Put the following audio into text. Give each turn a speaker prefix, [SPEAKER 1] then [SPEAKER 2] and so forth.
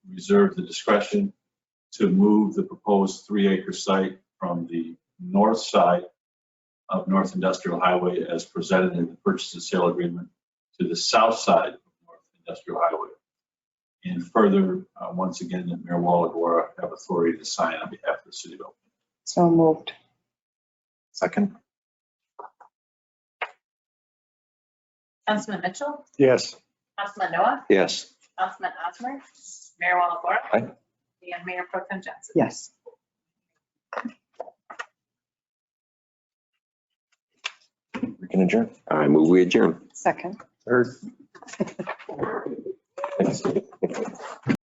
[SPEAKER 1] reserve the discretion to move the proposed three-acre site from the north side of North Industrial Highway as presented in the purchase and sale agreement to the south side of North Industrial Highway. And further, uh, once again, that Mayor Walagora have authority to sign on behalf of the city of Elk.
[SPEAKER 2] So moved.
[SPEAKER 3] Second?
[SPEAKER 4] Councilman Mitchell,
[SPEAKER 3] Yes.
[SPEAKER 4] Councilman Noah,
[SPEAKER 3] Yes.
[SPEAKER 4] Councilman Osmer, Mayor Walagora.
[SPEAKER 3] Aye.
[SPEAKER 4] And Mayor Pro Tem Johnson.
[SPEAKER 2] Yes.
[SPEAKER 3] We can adjourn.
[SPEAKER 5] I move we adjourn.
[SPEAKER 2] Second.
[SPEAKER 3] Third.